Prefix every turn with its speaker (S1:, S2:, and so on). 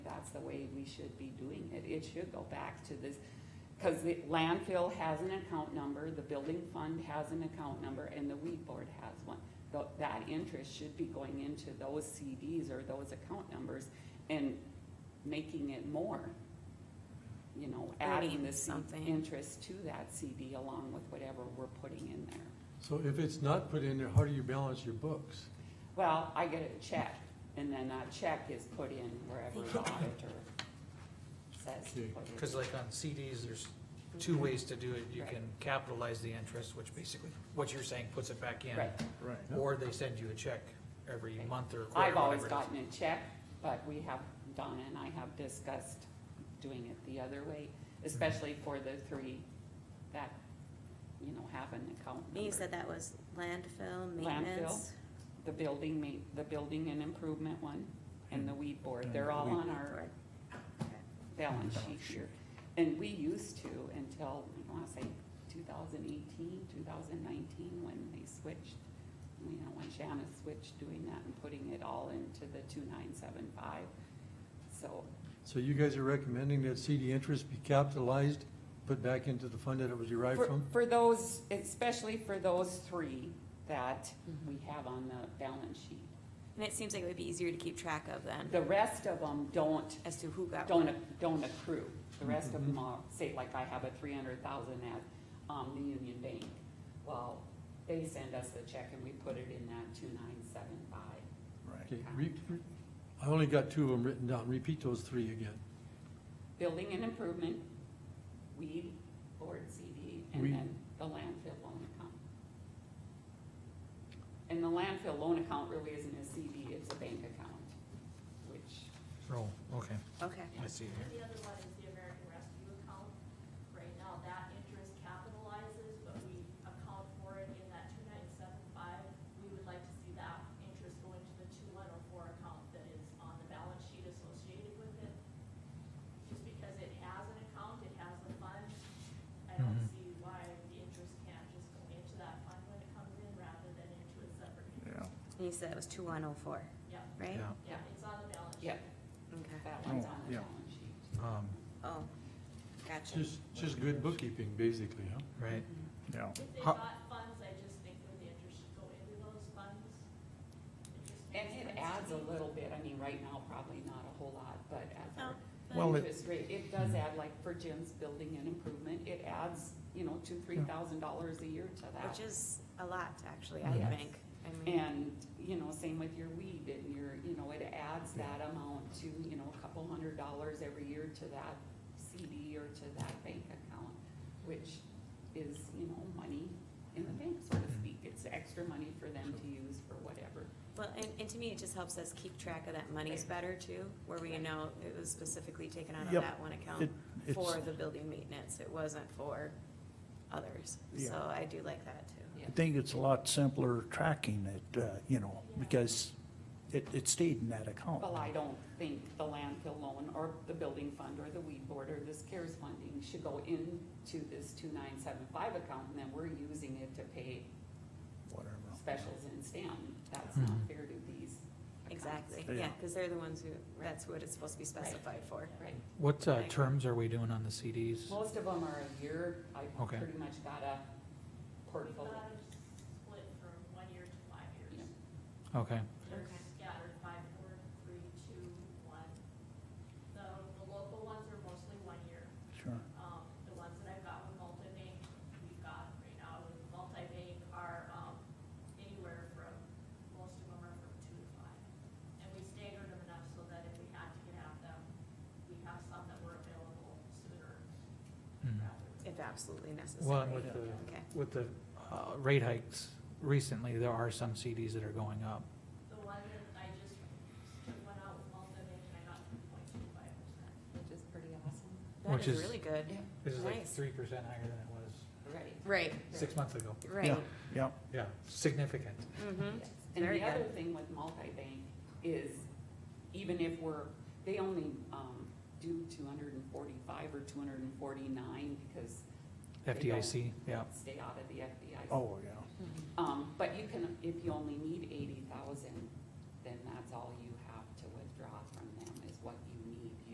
S1: the way we should be doing it. It should go back to this, cause the landfill has an account number, the building fund has an account number, and the weed board has one. Tho- That interest should be going into those CDs or those account numbers and making it more. You know, adding
S2: Adding
S1: the C-
S2: something.
S1: interest to that CD along with whatever we're putting in there.
S3: So if it's not put in there, how do you balance your books?
S1: Well, I get a check, and then that check is put in wherever the auditor says to
S3: Okay.
S1: put it.
S4: Cause like on CDs, there's two ways to do it. You
S1: Mm-hmm. Right.
S4: can capitalize the interest, which basically, what you're saying, puts it back in.
S1: Right.
S3: Right.
S4: Or they send you a check every
S1: Okay.
S4: month or.
S1: I've
S4: quarter,
S1: always
S4: whatever it is.
S1: gotten a check, but we have, Donna and I have discussed doing it the other way, especially for the three that, you know, have an account
S2: And You
S1: number.
S2: said that was landfill, maintenance,
S1: The building ma- the building and improvement one, and the weed board,
S3: And
S1: they're all
S3: weed
S1: on our
S2: board.
S1: balance sheet here. And we used to until, I wanna say 2018, 2019, when they switched, you know, when Shanna switched doing that and putting it all into the 2975. So,
S3: So you guys are recommending that CD interest be capitalized, put back into the fund that it was derived
S1: for-
S3: from?
S1: for those, especially for those three that we have on the balance sheet.
S2: And it seems like it would be easier to keep track of then,
S1: The rest of them don't
S2: as to who got
S1: don't,
S2: what.
S1: ac- don't accrue. The rest of them are, say, like I have a three hundred thousand at, um, the Union Bank. Well, they send us the check and we put it in that two nine seven five.
S3: Okay, re- re- I only got two of them written down. Repeat those three again.
S1: Building and improvement, weed, board CD, and
S3: Weed.
S1: then the landfill loan account. And the landfill loan account really isn't a CD, it's a bank account, which
S4: Oh, okay,
S2: Okay,
S4: I see it here.
S5: The other one is the American Rescue account. Right now, that interest capitalizes, but we account for it in that two nine seven five. We would like to see that interest go into the two one oh four account that is on the balance sheet associated with it. Just because it has an account, it has a fund, I don't
S4: Mhm.
S5: see why the interest can't just go into that fund when it comes in rather than into a separate.
S6: Yeah,
S2: and you said it was two one oh four,
S5: Yeah,
S2: right?
S4: Yeah.
S5: yeah, it's on the balance sheet.
S1: Yep.
S2: Okay,
S1: that one's
S6: Oh,
S1: on the
S6: yeah.
S1: balance sheet.
S4: Um,
S2: oh, gotcha.
S3: Just, just good bookkeeping, basically, huh?
S4: right.
S6: yeah.
S5: If they
S4: How-
S5: got funds, I just think that the interest should go into those funds. It just
S1: And it
S5: makes sense to
S1: adds a
S5: me.
S1: little bit, I mean, right now, probably not a whole lot, but as our
S5: No, but-
S6: Well, it-
S1: interest rate, it does add, like for Jim's building and improvement, it adds, you know, two, three thousand dollars a year to that.
S2: Which is a lot, actually, I
S1: Yes.
S2: think. I mean,
S1: And, you know, same with your weed and your, you know, it adds that amount to, you know, a couple hundred dollars every year to that CD or to that bank account, which is, you know, money in the bank, so
S6: Mm-hmm.
S1: to speak. It's extra money for them to use for whatever.
S2: Well, and, and to me, it just helps us keep track of that monies better too, where we know it was specifically taken out of
S6: Yep.
S2: that one account
S6: It- it's-
S2: for the building maintenance, it wasn't for others. So
S6: Yeah.
S2: I do like that too.
S1: Yeah.
S6: I think it's a lot simpler tracking it, uh, you know, because it, it stayed in that account.
S1: Well, I don't think the landfill loan or the building fund or the weed board or this CARES funding should go into this two nine seven five account and then we're using it to pay
S6: Whatever.
S1: specials in STEM. That's not
S4: Mhm.
S1: fair to these accounts.
S2: Exactly, yeah,
S6: Yeah.
S2: because they're the ones who, that's what it's supposed to be specified for.
S1: Right.
S4: What, uh, terms are we doing on the CDs?
S1: Most of them are a year. I
S4: Okay.
S1: pretty much got a
S5: We've
S1: portfolio.
S5: got it split from one year to five years.
S4: Okay,
S5: They're
S2: Okay.
S5: scattered five, four, three, two, one. The, the local ones are mostly one year.
S6: Sure.
S5: Um, the ones that I've got with multi-bank, we've got right now with multi-bank are, um, anywhere from, most of them are from two to five. And we staggered them enough so that if we had to get at them, we have some that were available sooner
S4: Mhm.
S5: rather than.
S2: If absolutely
S4: well,
S2: necessary.
S4: and with the,
S2: Okay,
S4: with the, uh, rate hikes recently, there are some CDs that are going up.
S5: The one that I just went out with multi-bank and I got three point two five percent.
S1: Which is pretty awesome.
S4: Which
S2: that is
S4: is-
S2: really good.
S1: Yeah,
S4: This is like
S2: Nice.
S4: three percent higher than it was
S1: right.
S2: Right,
S4: six months ago.
S6: Yeah,
S2: right.
S6: yeah.
S4: Yeah, significant.
S2: Mm-hmm.
S1: Yes. And
S2: Very
S1: the
S2: good.
S1: other thing with multi-bank is even if we're, they only, um, do two hundred and forty-five or two hundred and forty-nine because They don't.
S4: FDIC, yeah.
S1: stay out of the FBI.
S6: Oh, yeah.
S1: Um, but you can, if you only need eighty thousand, then that's all you